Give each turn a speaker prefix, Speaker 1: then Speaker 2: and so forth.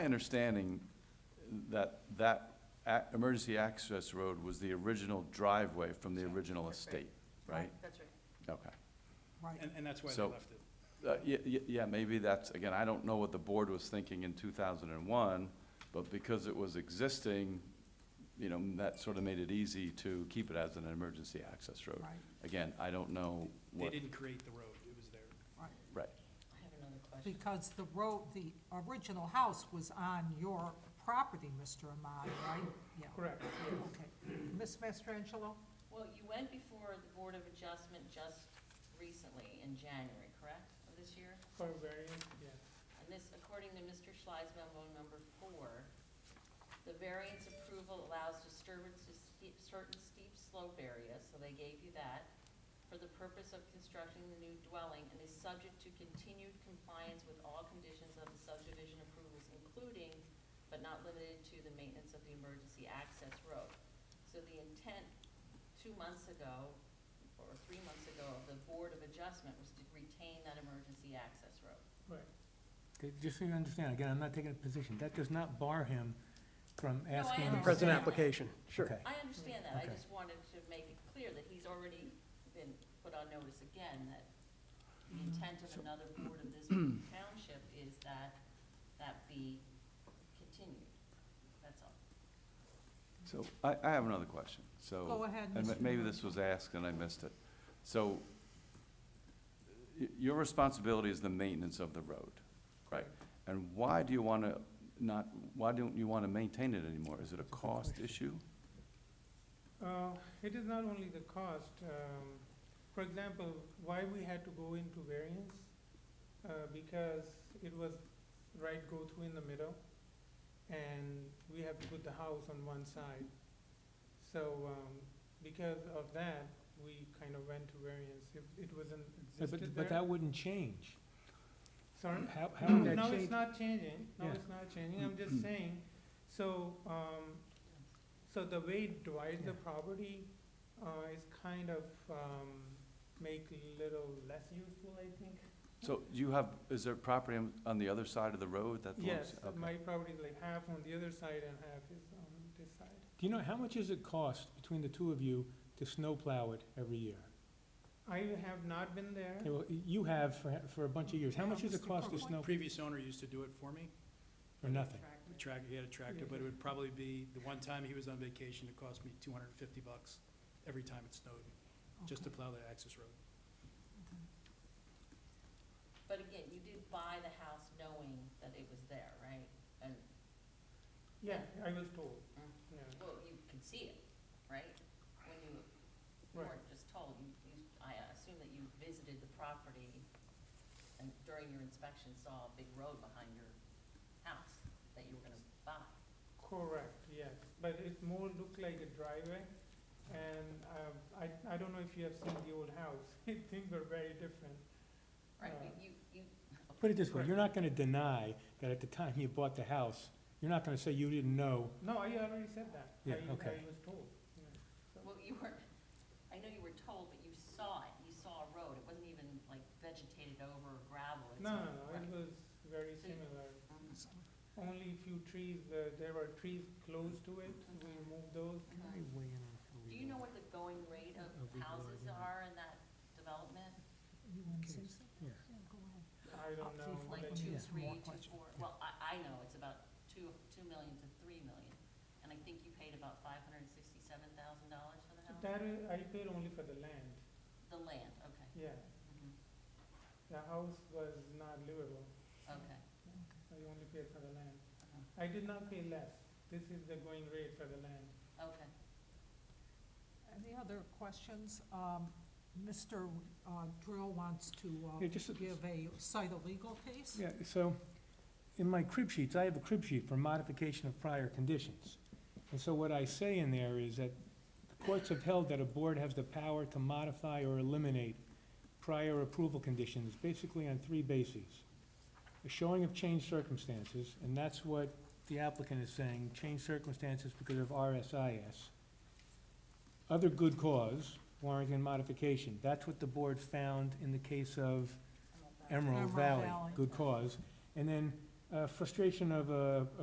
Speaker 1: My understanding that that a- emergency access road was the original driveway from the original estate, right?
Speaker 2: That's right.
Speaker 1: Okay.
Speaker 3: Right,
Speaker 4: And, and that's why they
Speaker 1: So-
Speaker 4: left it.
Speaker 1: Uh, yeah, yeah, yeah, maybe that's, again, I don't know what the board was thinking in two thousand and one, but because it was existing, you know, that sort of made it easy to keep it as an emergency access road.
Speaker 3: right,
Speaker 1: Again, I don't know
Speaker 4: They
Speaker 1: what,
Speaker 4: didn't create the road, it was there.
Speaker 3: right.
Speaker 1: right,
Speaker 2: I have another question.
Speaker 3: Because the road, the original house was on your property, Mr. Ahmad, right? Yeah.
Speaker 4: Correct.
Speaker 3: Okay. Ms. Mastrangelo?
Speaker 2: Well, you went before the Board of Adjustment just recently in January, correct, of this year?
Speaker 4: For variance, yeah.
Speaker 2: And this, according to Mr. Schley's memo number four, the variance approval allows disturbance to steep, certain steep slope areas, so they gave you that, for the purpose of constructing the new dwelling, and is subject to continued compliance with all conditions of the subdivision approvals, including, but not limited to, the maintenance of the emergency access road. So the intent two months ago, or three months ago, of the Board of Adjustment was to retain that emergency access road.
Speaker 4: Right.
Speaker 5: Okay, just so you understand, again, I'm not taking a position, that does not bar him from
Speaker 2: I
Speaker 5: asking.
Speaker 2: understand.
Speaker 6: Present
Speaker 2: Yeah.
Speaker 6: application, sure.
Speaker 5: Okay,
Speaker 2: I understand that, I
Speaker 5: Okay.
Speaker 2: just wanted to make it clear that he's already been put on notice again, that the intent of another board of this township is that that be continued, that's all.
Speaker 1: so, I, I have another question, so.
Speaker 3: Go ahead,
Speaker 1: Oh, And ma-
Speaker 3: Mr.
Speaker 1: maybe
Speaker 3: Ahmad.
Speaker 1: this was asked and I missed it. So, y- your responsibility is the maintenance of the road, right? And why do you want to not, why don't you want to maintain it anymore? Is it a
Speaker 5: That's a good
Speaker 1: cost
Speaker 5: question.
Speaker 1: issue?
Speaker 7: Uh, It is not only the cost. um, For example, why we had to go into variance? uh, Because it was right go-through in the middle, and we have to put the house on one side. So um, because of that, we kind of went to variance. If it wasn't
Speaker 5: But-
Speaker 7: existed
Speaker 5: but, but
Speaker 7: there.
Speaker 5: that wouldn't change.
Speaker 7: Sorry?
Speaker 5: How, how would that change?
Speaker 7: Now it's not changing, now
Speaker 5: Yeah. Mm-hmm.
Speaker 7: it's not changing, I'm just saying, so, um, so the way it divides the
Speaker 5: Yeah.
Speaker 7: property, uh, is kind of, um, make little less useful, I think.
Speaker 1: So you have, is there property on, on the other side of the road that belongs?
Speaker 7: Yes,
Speaker 1: okay.
Speaker 7: my property is like half on the other side and half is on this side.
Speaker 5: Do you know, how much does it cost between the two of you to snowplow it every year?
Speaker 7: I have not been there,
Speaker 5: Okay, well, you have for, for a bunch of years, how much does it cost to snow,
Speaker 4: Previous owner used to do it for me,
Speaker 5: or nothing?
Speaker 4: The track, he had a tractor, but it would probably be, the one time he was on vacation, it cost me two hundred and fifty bucks every time it snowed, just to
Speaker 3: Okay.
Speaker 4: plow the access road.
Speaker 2: But again, you did buy the house knowing that it was there, right? And,
Speaker 7: yeah, I was told,
Speaker 2: Mm.
Speaker 7: yeah,
Speaker 2: well, you could see it, right? When you
Speaker 7: Right.
Speaker 2: weren't just told, you, you, I assume that you visited the property and during your inspection saw a big road behind your house that you were gonna buy.
Speaker 7: correct, yes, but it more looked like a driveway. And, um, I, I don't know if you have seen the old house, things were very different.
Speaker 2: Right,
Speaker 7: Uh,
Speaker 2: you, you, you,
Speaker 5: Put it this way, you're not gonna deny that at the time you bought the house, you're not gonna say you didn't know.
Speaker 7: No, I already said that.
Speaker 5: Yeah,
Speaker 7: I-
Speaker 5: okay.
Speaker 7: I was told. yeah.
Speaker 2: well, you were, I know you were told, but you saw it, you saw a road, it wasn't even like vegetated over or gravel. it's
Speaker 7: No,
Speaker 2: all-
Speaker 7: no, no,
Speaker 2: right.
Speaker 7: it was very
Speaker 2: So you-
Speaker 7: similar.
Speaker 2: Um,
Speaker 7: Only few trees, uh, there were trees close to it, we removed those.
Speaker 2: okay. Do you know what the going rate of
Speaker 5: Of the
Speaker 2: houses
Speaker 5: garden.
Speaker 2: are in that development?
Speaker 3: You want to say
Speaker 5: Okay.
Speaker 3: something?
Speaker 5: Yeah.
Speaker 3: Yeah, go ahead.
Speaker 7: I
Speaker 3: Up
Speaker 7: don't
Speaker 3: to
Speaker 7: know.
Speaker 3: like
Speaker 7: but-
Speaker 2: Like two,
Speaker 5: Yeah.
Speaker 2: three,
Speaker 3: More
Speaker 2: two,
Speaker 3: question.
Speaker 2: four, well, I, I know, it's about two, two million to three million. And I think you paid about five hundred and sixty-seven thousand dollars for the house?
Speaker 7: That is, I paid only for the land,
Speaker 2: The land, okay.
Speaker 7: yeah.
Speaker 2: Mhm.
Speaker 7: The house was not livable,
Speaker 2: Okay,
Speaker 7: I only paid for the land.
Speaker 2: Uh-huh.
Speaker 7: I did not pay less, this is the going rate for the land.
Speaker 2: okay.
Speaker 3: Any other questions? Um, Mr. uh, Drill wants to uh,
Speaker 5: Yeah, just a-
Speaker 3: give a cite a legal case?
Speaker 5: Yeah, so, in my crib sheets, I have a crib sheet for modification of prior conditions. And so what I say in there is that the courts have held that a board has the power to modify or eliminate prior approval conditions, basically on three bases. A showing of changed circumstances, and that's what the applicant is saying, changed circumstances because of RSIS. Other good cause warranting modification, that's what the board found in the case of
Speaker 2: I'm all back.
Speaker 5: Emerald
Speaker 3: Emerald
Speaker 5: Valley,
Speaker 3: Valley.
Speaker 5: good cause. And then
Speaker 7: uh, frustration of a a